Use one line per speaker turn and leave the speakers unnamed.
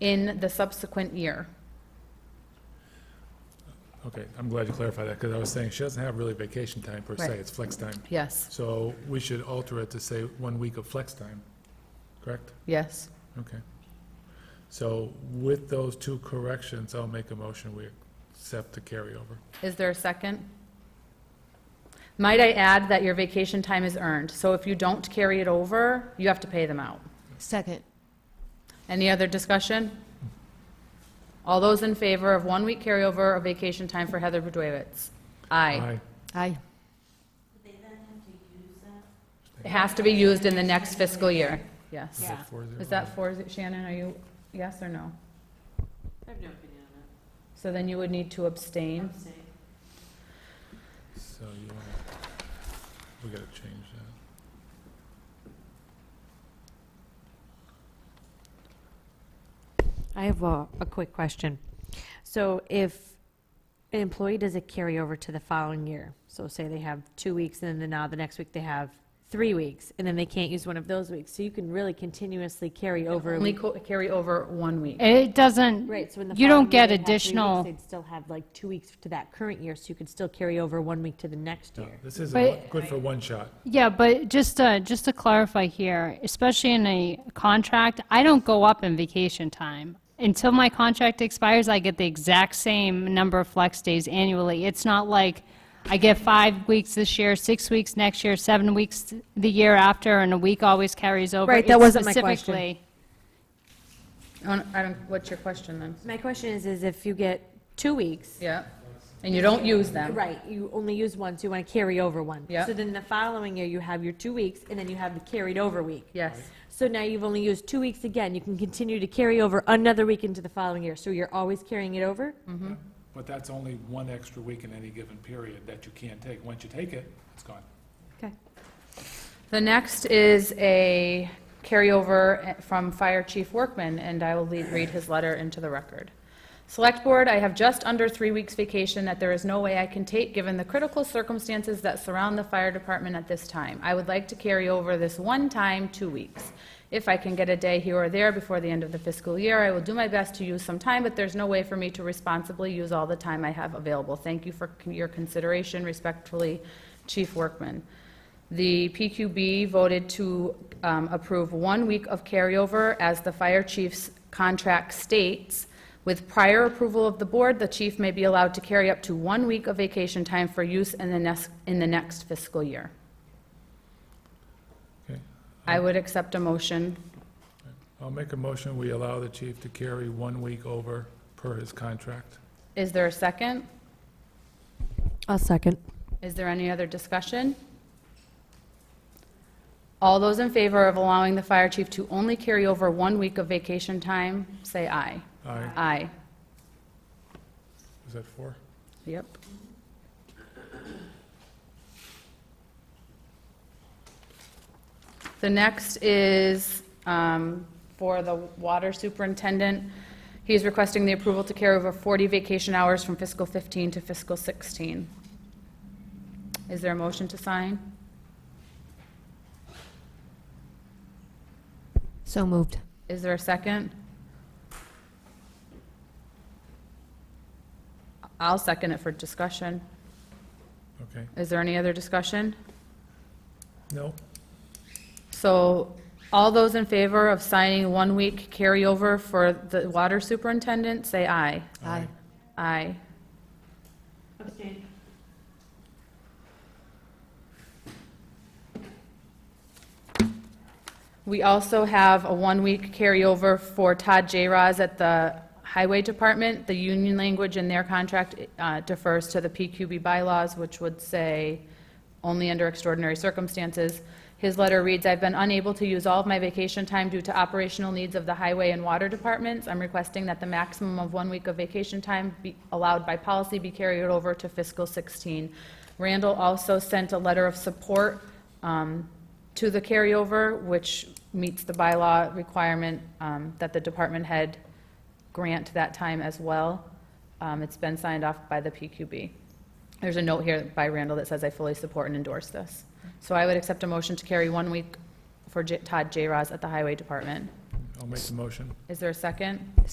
in the subsequent year.
Okay, I'm glad you clarified that, because I was saying she doesn't have really vacation time per se,
Right.
it's flex time.
Yes,
So we should alter it to say one week of flex time, correct?
yes.
Okay. So with those two corrections, I'll make a motion, we accept the carryover.
Is there a second? Might I add that your vacation time is earned, so if you don't carry it over, you have to pay them out.
Second.
Any other discussion? All those in favor of one-week carryover of vacation time for Heather Budrowitz? Aye.
Aye.
It has to be used in the next fiscal year, yes.
Is that four zero?
Is that for, is it- Shannon, are you, yes or no?
I have no opinion on that.
So then you would need to abstain?
Abstain.
So you want to, we got to change that.
I have a, a quick question. So if an employee does a carryover to the following year, so say they have two weeks and then now the next week they have three weeks, and then they can't use one of those weeks, so you can really continuously carry over. a
Only
week.
co- carry over one week.
It doesn't,
Right, so in the
you don't
following year
get
they have three weeks,
additional,
They'd still have like two weeks to that current year, so you could still carry over one week to the next
No,
year.
This is
But-
a one- good for one shot.
yeah, but just to, just to clarify here, especially in a contract, I don't go up in vacation time. Until my contract expires, I get the exact same number of flex days annually. It's not like I get five weeks this year, six weeks next year, seven weeks the year after, and a week always carries over.
Right, that
It's
wasn't my question.
specifically-
I don't- I don't, what's your question then?
My question is, is if you get two weeks,
Yeah, and you don't use them.
right, you only use one, so you want to carry over one.
Yeah.
So then the following year, you have your two weeks, and then you have the carried over week.
Yes,
So now you've only used two weeks again. You can continue to carry over another week into the following year. So you're always carrying it over?
Mm.
Mm-hmm.
But that's only one extra week in any given period that you can't take. Once you take it, it's gone.
Okay.
the next is a carryover from Fire Chief Workman, and I will lead- read his letter into the record. Select Board, I have just under three weeks vacation that there is no way I can take given the critical circumstances that surround the fire department at this time. I would like to carry over this one time, two weeks. If I can get a day here or there before the end of the fiscal year, I will do my best to use some time, but there's no way for me to responsibly use all the time I have available. Thank you for c- your consideration. Respectfully, Chief Workman. The PQB voted to um, approve one week of carryover as the fire chief's contract states. With prior approval of the board, the chief may be allowed to carry up to one week of vacation time for use in the next, in the next fiscal year.
Okay.
I would accept a motion.
I'll make a motion, we allow the chief to carry one week over per his contract.
Is there a second?
I'll second.
Is there any other discussion? All those in favor of allowing the fire chief to only carry over one week of vacation time, say aye.
Aye.
Aye.
Is that four?
Yep. The next is um, for the water superintendent. He is requesting the approval to carry over 40 vacation hours from fiscal 15 to fiscal 16. Is there a motion to sign?
So moved.
Is there a second? I'll second it for discussion.
Okay.
Is there any other discussion?
No?
So all those in favor of signing one-week carryover for the water superintendent, say aye.
Aye.
Aye.
Abstain.
We also have a one-week carryover for Todd J. Roz at the Highway Department. The union language in their contract uh, defers to the PQB bylaws, which would say only under extraordinary circumstances. His letter reads, "I've been unable to use all of my vacation time due to operational needs of the Highway and Water Departments. I'm requesting that the maximum of one week of vacation time be allowed by policy be carried over to fiscal 16." Randall also sent a letter of support um, to the carryover, which meets the bylaw requirement um, that the department head grant that time as well. Um, It's been signed off by the PQB. There's a note here by Randall that says, "I fully support and endorse this." So I would accept a motion to carry one week for J- Todd J. Ross at the Highway Department.
I'll make the motion.
Is there a second?